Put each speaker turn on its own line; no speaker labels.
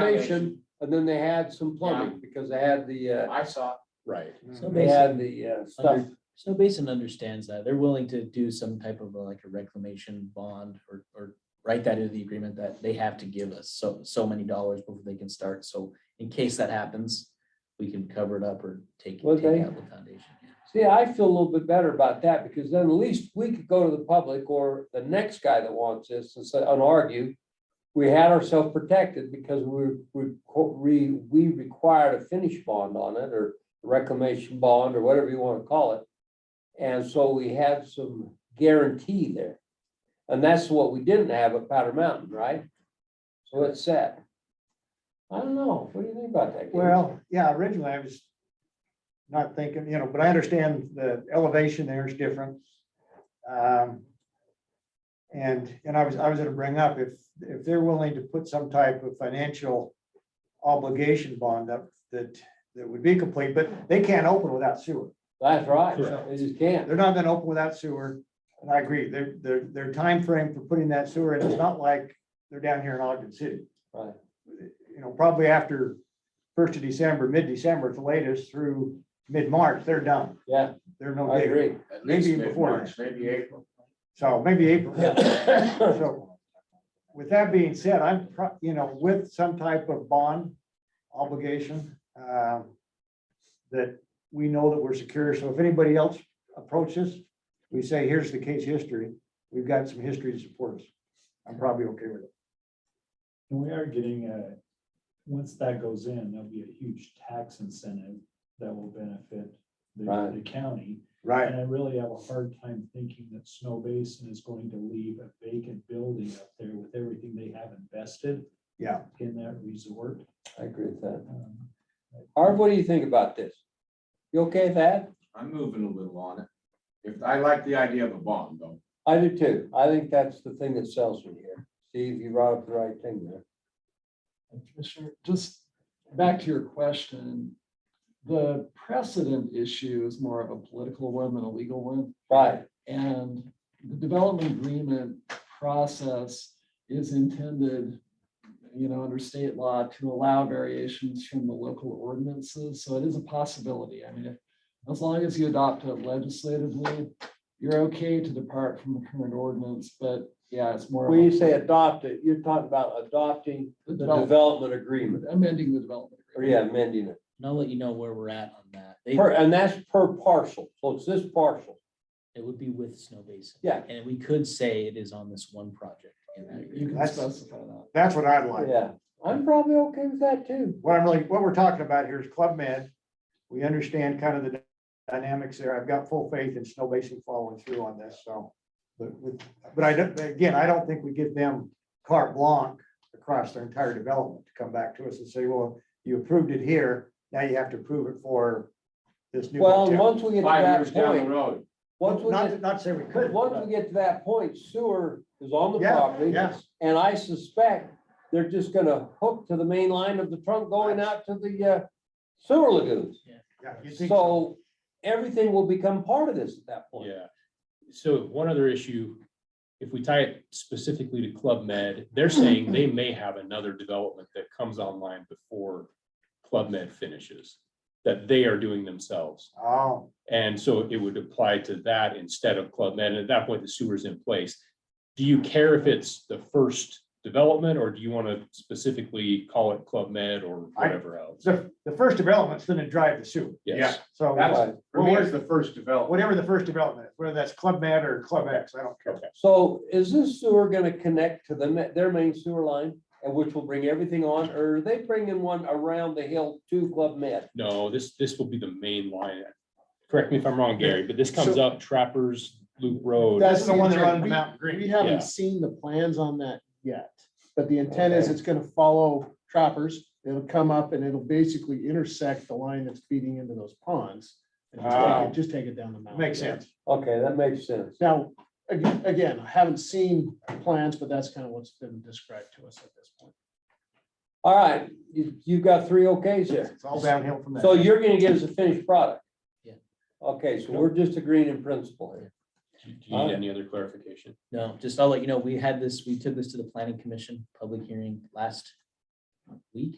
foundation, and then they had some plumbing, because they had the, uh,
I saw.
right,
So
they
basically,
had the, uh, stuff.
Snow Basin understands that. They're willing to do some type of a- like a reclamation bond or, or write that into the agreement that they have to give us so, so many dollars before they can start. So in case that happens, we can cover it up or take,
Would
take
they?
out the foundation.
See, I feel a little bit better about that, because then at least we could go to the public or the next guy that wants this and say, and argue. We had ourselves protected because we, we, we, we required a finish bond on it, or reclamation bond, or whatever you wanna call it. And so we had some guarantee there. And that's what we didn't have at Powder Mountain, right? So it's set. I don't know, what do you think about that? Gabe?
Well, yeah, originally I was not thinking, you know, but I understand the elevation there is different. Um, And, and I was, I was gonna bring up, if, if they're willing to put some type of financial obligation bond up that, that would be complete, but they can't open without sewer.
That's right,
Correct.
they just can't,
They're not gonna open without sewer, and I agree, their, their, their timeframe for putting that sewer in is not like they're down here in Ogden City.
Right.
You know, probably after first of December, mid-December at the latest through mid-March, they're done,
yeah,
they're no
I
bigger,
agree.
At
Maybe
least
before
mid-March, Maybe April.
so maybe April.
Yeah.
So, With that being said, I'm, pro- you know, with some type of bond obligation, um, that we know that we're secure, so if anybody else approaches, we say, here's the case history, we've got some history to support us. I'm probably okay with it.
And we are getting a, once that goes in, there'll be a huge tax incentive that will benefit
Right.
the, the county.
Right.
And I really have a hard time thinking that Snow Basin is going to leave a vacant building up there with everything they have invested.
Yeah.
In that resort.
I agree with that.
Um,
Harv, what do you think about this? You okay with that?
I'm moving a little on it. If, I like the idea of a bond though.
I do too. I think that's the thing that sells me here. Steve, you brought up the right thing there.
And Commissioner, just back to your question. The precedent issue is more of a political one than a legal one.
Right,
And the development agreement process is intended, you know, under state law to allow variations from the local ordinances. So it is a possibility. I mean, if- as long as you adopt it legislatively, you're okay to depart from the current ordinance, but yeah, it's more. of
when
a-
you say adopt it, you're talking about adopting
the
the
develop-
development agreement,
Amending the development.
or
agreement.
yeah, amending it.
And I'll let you know where we're at on that. They,
Per, and that's per parcel, so it's this parcel.
it would be with Snow Basin.
Yeah.
And we could say it is on this one project. in that
You
agreement.
can
That's-
specify that.
That's what I'd like.
Yeah, I'm probably okay with that too.
What I'm really, what we're talking about here is Club Med. We understand kind of the dynamics there. I've got full faith in Snow Basin following through on this, so. But with, but I don't, again, I don't think we give them carte blanche across their entire development to come back to us and say, well, you approved it here, now you have to approve it for this new
Well, and
hotel.
once we get to
Five years
that
down the
point,
road.
once we
Not,
get,
to- not to say we couldn't.
once we get to that point, sewer is on the
Yeah,
property.
Yes,
And I suspect they're just gonna hook to the main line of the trunk going out to the uh, sewer lagoons.
yeah. you'd think
So everything will become part of this at that point.
Yeah. So one other issue, if we tie it specifically to Club Med, they're saying they may have another development that comes online before Club Med finishes, that they are doing themselves.
Oh,
And so it would apply to that instead of Club Med. And at that point, the sewer's in place. Do you care if it's the first development or do you want to specifically call it Club Med or
I-
whatever else?
the, the first development's gonna drive the sewer,
Yes.
so.
That's, for me,
Well,
it's the first development.
whatever the first development, is, whether that's Club Med or Club X, I don't care.
So is this sewer gonna connect to the, ma- their main sewer line? And which will bring everything on, or are they bringing one around the hill to Club Med?
No, this, this will be the main line. Correct me if I'm wrong, Gary, but this comes up Trappers Loop Road.
That's the one that runs the Mountain Green.
We
Yeah.
haven't seen the plans on that yet, but the intent is
Okay.
it's gonna follow trappers. It'll come up and it'll basically intersect the line that's feeding into those ponds. and just take it-
Ah.
Just take it down the mountain.
Makes sense.
Okay, that makes sense.
Now, again, again, I haven't seen plans, but that's kind of what's been described to us at this point.
All right, you, you've got three okays there.
It's all downhill from there.
So you're gonna give us a finished product?
Yeah.
Okay, so we're just agreeing in principle here.
Do you need any other clarification?
No, just I'll let you know, we had this, we took this to the planning commission, public hearing last week.